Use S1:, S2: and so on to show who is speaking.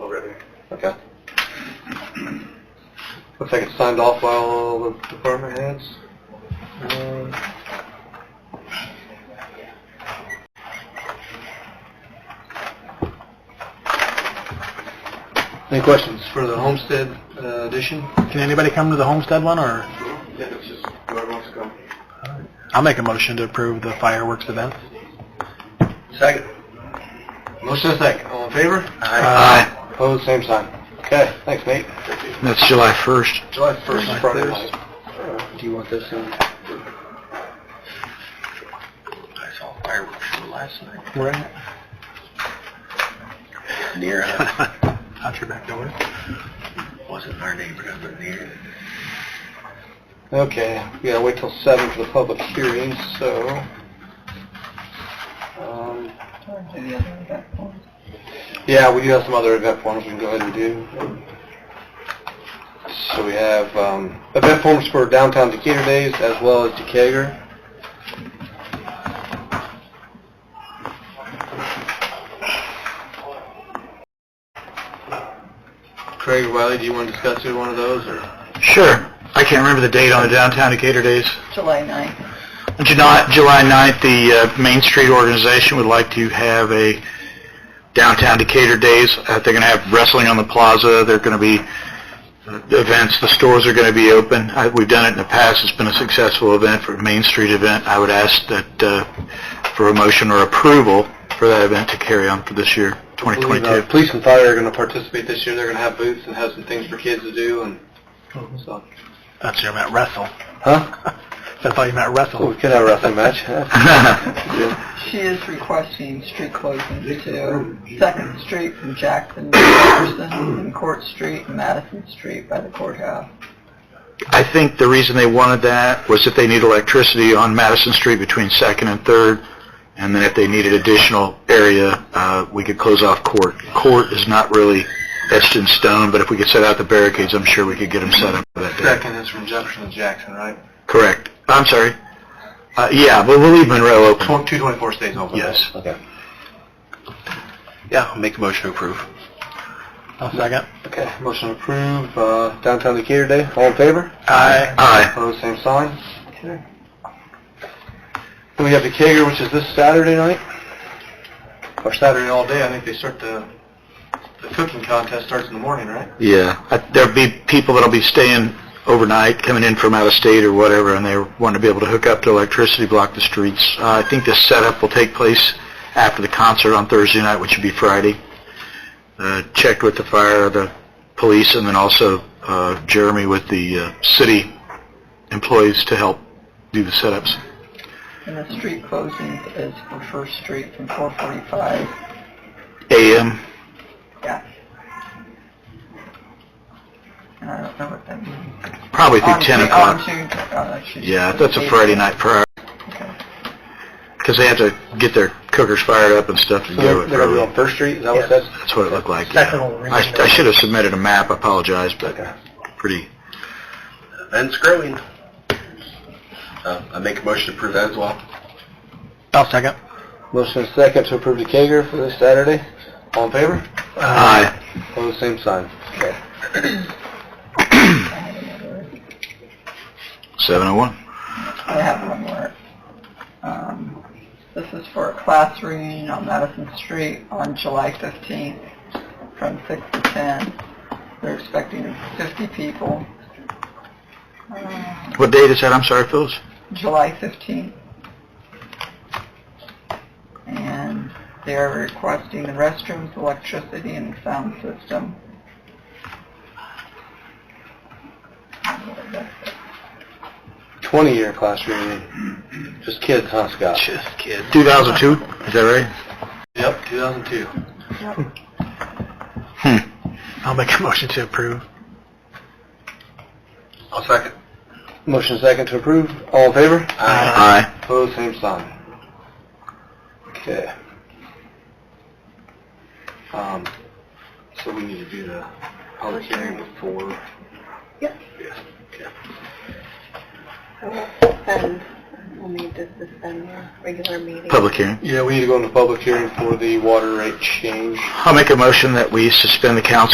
S1: Okay. Looks like it's signed off by all the department heads. Um, Any questions for the homestead uh, addition?
S2: Can anybody come to the homestead one, or
S1: Mm-hmm. Yeah, it's just whoever wants to come.
S2: I'll make a motion to approve the fireworks event.
S1: Second. Motion is second. All in favor?
S2: Aye.
S1: Opposed, same sign. Okay, thanks, Nate.
S2: That's July 1st.
S1: July 1st
S2: July
S1: is Friday
S2: 1st.
S1: night. Do you want this in? I saw fireworks show last night.
S2: Right.
S1: Near,
S2: Out your back door.
S1: wasn't our neighborhood, but near. Okay, we gotta wait till seven for the public hearing, so. um, Yeah, we do have some other event forms we can go ahead and do. So we have um, event forms for downtown Decatur Days as well as Decatur. Craig Riley, do you want to discuss either one of those, or?
S2: Sure. I can't remember the date on the downtown Decatur days.
S3: July 9th.
S2: July, July 9th, the uh, Main Street organization would like to have a downtown Decatur days. Uh, They're going to have wrestling on the plaza. They're going to be uh, events. The stores are going to be open. I- We've done it in the past. It's been a successful event for a Main Street event. I would ask that uh, for a motion or approval for that event to carry on for this year,
S1: I believe, uh,
S2: 2022.
S1: Police and fire are going to participate this year. They're going to have booths and have some things for kids to do and so.
S2: That's your meant wrestle.
S1: Huh?
S2: I thought you meant
S1: Oh,
S2: wrestle.
S1: we could have a wrestling match.
S3: She is requesting street closings to Second Street from Jackson to Jefferson and Court Street and Madison Street by the courthouse.
S2: I think the reason they wanted that was if they need electricity on Madison Street between Second and Third, and then if they needed additional area, uh, we could close off Court. Court is not really etched in stone, but if we could set out the barricades, I'm sure we could get them set up that day.
S1: Second is from Jefferson to Jackson, right?
S2: Correct. I'm sorry. Uh, yeah, but we'll leave Monroe open.
S1: 224 stays open.
S2: Yes.
S1: Okay.
S2: Yeah, I'll make a motion to approve. I'll second.
S1: Okay, motion approved. Uh, downtown Decatur Day. All in favor?
S2: Aye. Aye.
S1: Opposed, same sign. Okay. Then we have Decatur, which is this Saturday night. Or Saturday all day. I think they start the, the cooking contest starts in the morning, right?
S2: Yeah, I- there'll be people that'll be staying overnight, coming in from out of state or whatever, and they want to be able to hook up to electricity, block the streets. Uh, I think this setup will take place after the concert on Thursday night, which would be Friday. Uh, Checked with the fire, the police, and then also uh, Jeremy with the uh, city employees to help do the setups.
S3: And the street closing is for First Street from 445.
S2: AM,
S3: Yeah. And I don't know what that means.
S2: probably through
S3: On
S2: 10
S3: Ju-
S2: o'clock.
S3: On June, uh, she's-
S2: Yeah, that's a Friday night prior,
S3: Okay.
S2: because they have to get their cookers fired up and stuff
S1: So
S2: to go.
S1: they're,
S2: it
S1: they're going to
S2: early.
S1: be on First Street? Is that what
S2: Yes,
S1: that's?
S2: that's what it looked like.
S1: Second
S2: yeah.
S1: will ring
S2: I, I should have submitted a map, I apologize, but
S1: Okay.
S2: pretty,
S1: Event's growing. Uh, I make a motion to approve that as well.
S2: I'll second.
S1: Motion is second to approve the Kager for this Saturday. All in favor?
S2: Aye.
S1: Pose same sign. Okay.
S2: 701.
S3: I have one more. Um, This is for a class reunion on Madison Street on July 15th from 6 to 10. They're expecting 50 people. Uh,
S2: What date is that? I'm sorry, Phyllis.
S3: July 15th. And they're requesting the restrooms, electricity, and the sound system. I don't know what that's
S1: Twenty-year class reunion. Just kids, huh, Scott?
S2: Just kidding. 2002, is that right?
S1: Yep, two thousand two.
S2: I'll make a motion to approve.
S1: I'll second. Motion is second to approve. All in favor?
S2: Aye.
S1: Pose same sign. Okay. Um, so we need to do the public hearing before.
S4: Yep.
S1: Yeah, okay.
S4: I will suspend, we'll need to suspend your um, regular meeting.
S2: Public hearing.
S1: Yeah, we need to go into public hearing for the water rate change.
S2: I'll make a motion that we suspend the council